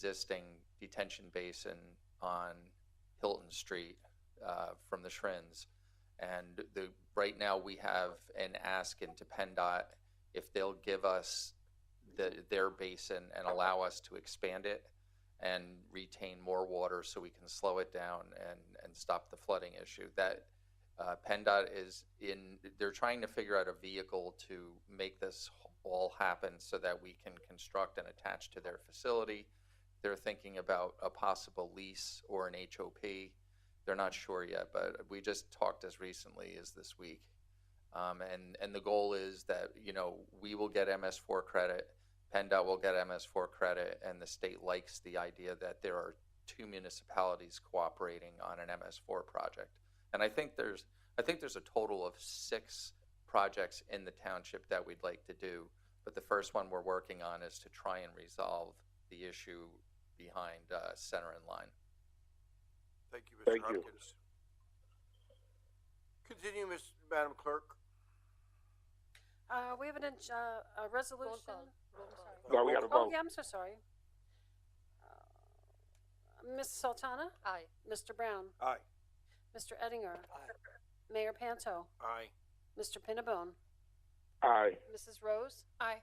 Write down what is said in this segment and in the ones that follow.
existing detention basin on Hilton Street uh, from the Shrins. And the, right now, we have an ask into PennDOT if they'll give us the, their basin and allow us to expand it and retain more water so we can slow it down and, and stop the flooding issue. That, uh, PennDOT is in, they're trying to figure out a vehicle to make this all happen so that we can construct and attach to their facility. They're thinking about a possible lease or an HOP. They're not sure yet, but we just talked as recently as this week. Um, and, and the goal is that, you know, we will get MS4 credit, PennDOT will get MS4 credit, and the state likes the idea that there are two municipalities cooperating on an MS4 project. And I think there's, I think there's a total of six projects in the township that we'd like to do. But the first one we're working on is to try and resolve the issue behind uh, Center and Line. Thank you, Mr. Thank you. Hopkins. Continue, Ms. Madam Clerk. Uh, we have an, ag- uh, a resolution. call. No, we got gotta to Oh, vote. yeah, I'm so sorry. Uh, Ms. Sultana? Aye. Mr. Brown? Aye. Mr. Eddinger? Mayor Panto? Aye. Mr. Pinnabone? Aye. Mrs. Rose? Aye.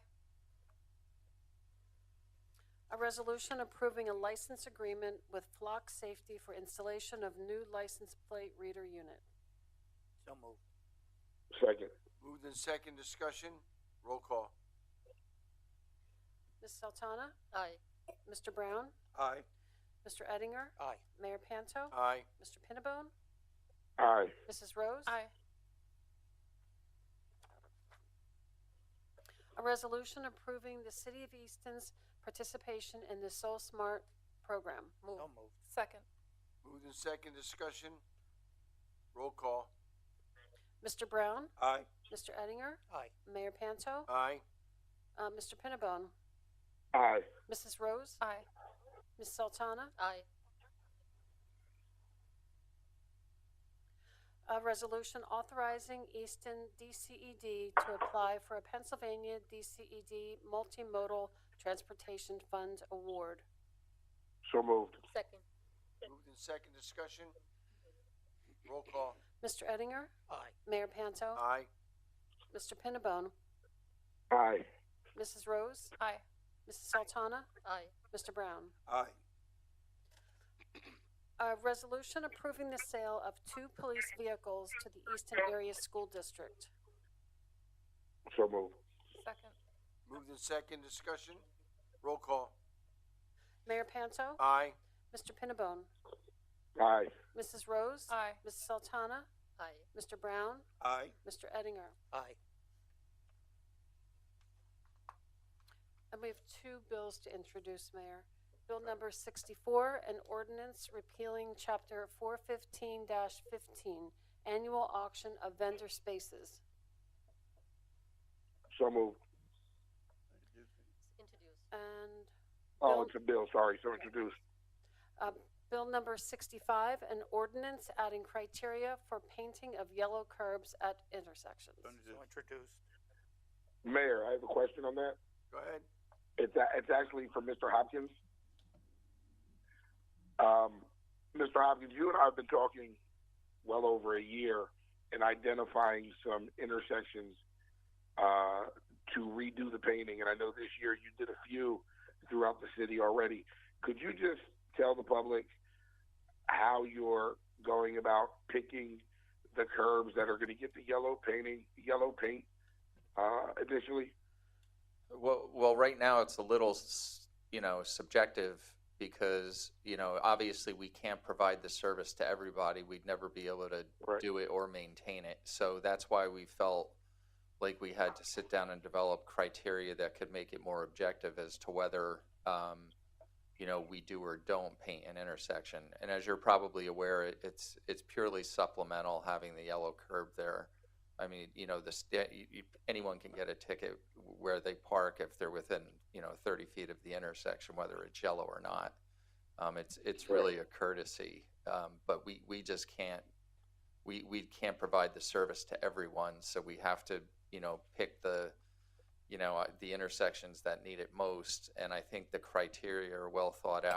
A resolution approving a license agreement with Flock Safety for installation of new license plate reader unit. So moved. Second. Moved in second discussion, roll call. Ms. Sultana? Aye. Mr. Brown? Aye. Mr. Eddinger? Aye. Mayor Panto? Aye. Mr. Pinnabone? Aye. Mrs. Rose? Aye. A resolution approving the City of Easton's participation in the Soul Smart program. Move. Second. Moved in second discussion, roll call. Mr. Brown, Aye. Mr. Eddinger, Aye. Mayor Panto, Aye. uh, Mr. Pinnabone, Aye. Mrs. Rose, Aye. Ms. Sultana. Aye. A resolution authorizing Easton DCED to apply for a Pennsylvania DCED Multimodal Transportation Fund Award. So moved. Second. Moved in second discussion, roll call. Mr. Eddinger, Aye. Mayor Panto, Aye. Mr. Pinnabone, Aye. Mrs. Rose, Aye. Mrs. Sultana, Aye. Mr. Brown. Aye. A resolution approving the sale of two police vehicles to the Easton Area School District. So moved. Second. Moved in second discussion, roll call. Mayor Panto, Aye. Mr. Pinnabone, Aye. Mrs. Rose, Aye. Ms. Sultana, Aye. Mr. Brown, Aye. Mr. Eddinger. Aye. And we have two bills to introduce, Mayor. Bill number 64, an ordinance repealing Chapter 415-15, Annual Auction of Vendor Spaces. So moved. Introduce. And Oh, Bill- it's a bill. Sorry. So introduced. Uh, Bill number 65, an ordinance adding criteria for painting of yellow curbs at intersections. Mayor, I have a question on that. Go ahead. It's a, it's actually for Mr. Hopkins. Um, Mr. Hopkins, you and I have been talking well over a year and identifying some intersections uh, to redo the painting. And I know this year you did a few throughout the city already. Could you just tell the public how you're going about picking the curbs that are going to get the yellow painting, yellow paint uh, initially? Well, well, right now it's a little, s- you know, subjective because, you know, obviously we can't provide the service to everybody. We'd never be able to Right. do it or maintain it. So that's why we felt like we had to sit down and develop criteria that could make it more objective as to whether, um, you know, we do or don't paint an intersection. And as you're probably aware, it- it's, it's purely supplemental having the yellow curb there. I mean, you know, the, sta- you- you- anyone can get a ticket where they park if they're within, you know, thirty feet of the intersection, whether it's yellow or not. Um, it's, it's really a courtesy, um, but we, we just can't, we, we can't provide the service to everyone, so we have to, you know, pick the, you know, uh, the intersections that need it most, and I think the criteria are well thought out.